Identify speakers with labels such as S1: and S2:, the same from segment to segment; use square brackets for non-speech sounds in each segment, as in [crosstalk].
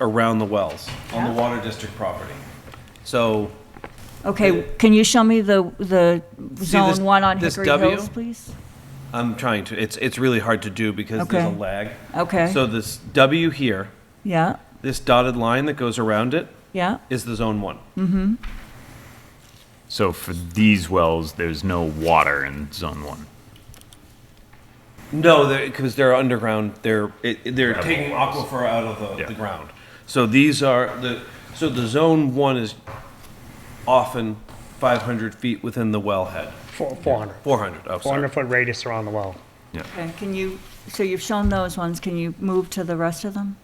S1: around the wells on the Water District property. So
S2: Okay, can you show me the, the
S1: See this-
S2: zone one on
S1: this
S2: Hickory
S1: W?
S2: Hills, please?
S1: I'm trying to, it's, it's really hard to do because there's
S2: Okay.
S1: a lag.
S2: Okay.
S1: So this W here,
S2: Yeah,
S1: this dotted line that goes around it
S2: yeah,
S1: is the zone one.
S3: So for these wells, there's no water in zone one.
S1: No, because they're underground, they're, it- it- they're
S3: Gravel
S1: taking
S3: wells.
S1: aquifer out of the,
S3: Yeah.
S1: the ground. So these are, the, so the zone one is often 500 feet within the wellhead.
S4: Four- 400.
S1: 400, oh, sorry.
S4: 400-foot radius around the well.
S2: okay, can you, so you've shown those ones, can you move to the rest of them?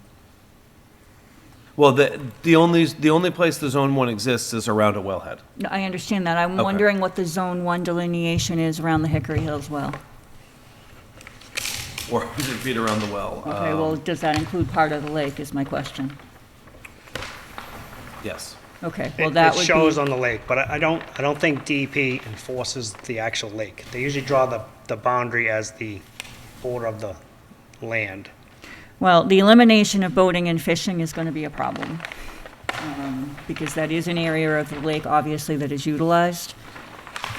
S1: Well, the, the only, the only place the zone one exists is around a wellhead.
S2: No, I understand that, I'm
S1: Okay.
S2: wondering what the zone one delineation is around the Hickory Hills well.
S1: 400 feet around the well.
S2: Okay,
S1: um,
S2: well, does that include part of the lake is my question.
S1: Yes.
S2: Okay, well,
S4: It
S2: that
S4: it
S2: would
S4: shows
S2: be,
S4: on the lake, but I I don't, I don't think DEP enforces the actual lake. They usually draw the, the boundary as the border of the land.
S2: well, the elimination of boating and fishing is gonna be a problem. um, Because that is an area of the lake, obviously, that is utilized.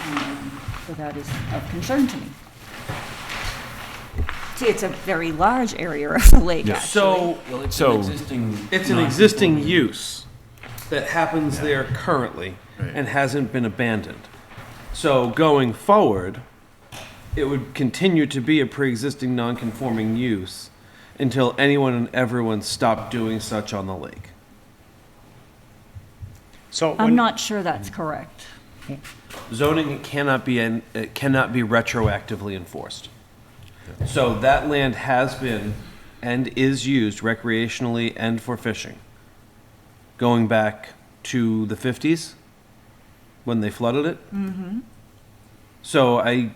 S2: um, So that is of concern to me. See, it's a very large area of the lake, actually.
S1: So
S5: Well, it's
S3: So-
S5: an existing.
S1: it's an existing use that happens there currently and hasn't been abandoned. So going forward, it would continue to be a pre-existing non-conforming use until anyone and everyone stopped doing such on the lake.
S4: So
S2: I'm
S4: when,
S2: not sure that's
S1: Mm.
S2: correct.
S1: Zoning cannot be, en- it cannot be retroactively enforced. So that land has been and is used recreationally and for fishing. Going back to the fifties, when they flooded it. Mm-hmm. So I,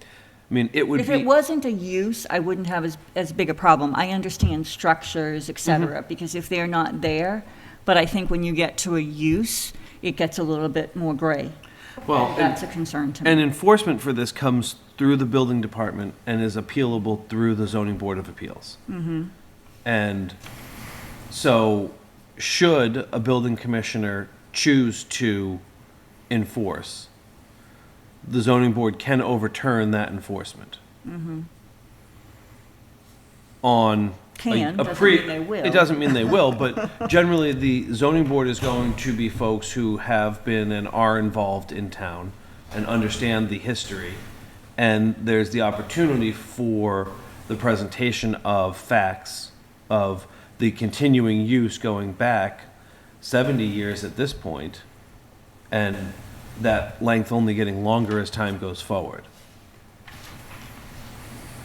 S1: I mean, it would
S2: If
S1: be.
S2: it wasn't a use, I wouldn't have as, as big a problem. I understand structures,
S1: Mm-hmm.
S2: et cetera, because if they're not there, but I think when you get to a use, it gets a little bit more gray.
S1: Well, and-
S2: That's a concern to
S1: And
S2: me.
S1: enforcement for this comes through the building department and is appealable through the zoning board of appeals.
S2: Mm-hmm.
S1: And so, should a building commissioner choose to enforce, the zoning board can overturn that enforcement.
S2: Mm-hmm.
S1: On. a-
S2: Can,
S1: a
S2: doesn't
S1: pre-
S2: mean they will.
S1: It doesn't mean they will, but generally, the zoning board is going to be folks who have been and are involved in town and understand the history. And there's the opportunity for the presentation of facts of the continuing use going back 70 years at this point, and that length only getting longer as time goes forward.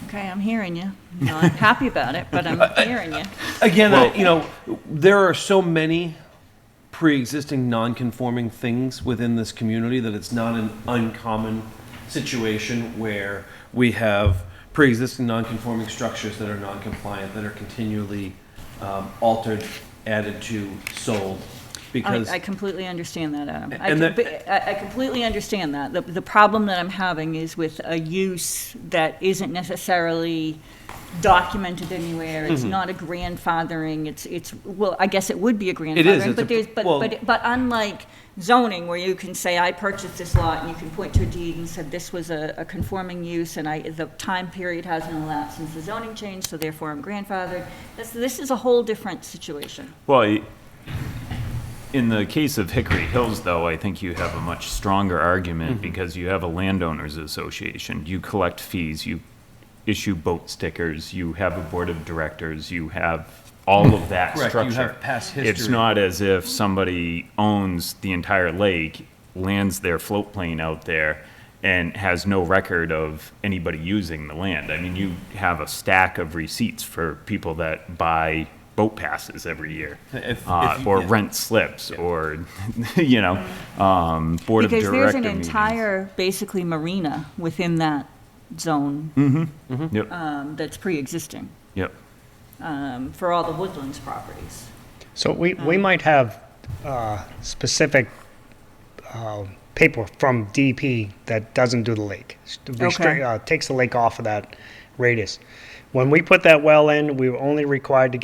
S2: Okay, I'm hearing you. No, I'm happy about it, but
S1: [laughs]
S2: I'm hearing you.
S1: Again, I- you know, there are so many pre-existing non-conforming things within this community that it's not an uncommon situation where we have pre-existing non-conforming structures that are non-compliant, that are continually um, altered, added to, sold, because,
S2: I, I completely understand that, Adam. I,
S1: And
S2: com-
S1: that-
S2: but I I completely understand that. The, the problem that I'm having is with a use that isn't necessarily documented anywhere.
S1: Mm-hmm.
S2: It's not a grandfathering. It's, it's, well, I guess it would be a
S1: is.
S2: grandfathering,
S1: It's a-
S2: but there's, but,
S1: well-
S2: but, but unlike zoning where you can say, I purchased this lot and you can point to a deed and said this was a, a conforming use and I, the time period hasn't elapsed since the zoning change, so therefore I'm grandfathered. This, this is a whole different situation.
S3: Well, i- in the case of Hickory Hills, though, I think you have a much stronger
S1: Mm-hmm.
S3: argument because you have a landowners association. You collect fees, you issue boat stickers, you have a board of directors, you have all of that
S1: Correct, you
S3: structure.
S1: have past
S3: It's
S1: history.
S3: not as if somebody owns the entire lake, lands their float plane out there, and has no record of anybody using the land. I mean, you have a stack of receipts for people that buy boat passes every year.
S1: If-
S3: uh,
S1: if you-
S3: or
S1: yeah.
S3: rent slips, or, [laughs] you know, um, board
S2: Because
S3: of
S2: there's
S3: director
S2: an
S3: meetings.
S2: entire, basically marina within that zone
S3: Yep,
S2: um, that's pre-existing
S3: yep.
S2: um, for all the woodlands properties.
S4: so we,
S2: Oh.
S4: we might have uh, specific uh, paper from DEP that doesn't do the lake.
S2: Okay.
S4: Restrict, uh, takes the lake off of that radius. When we put that well in, we were only required to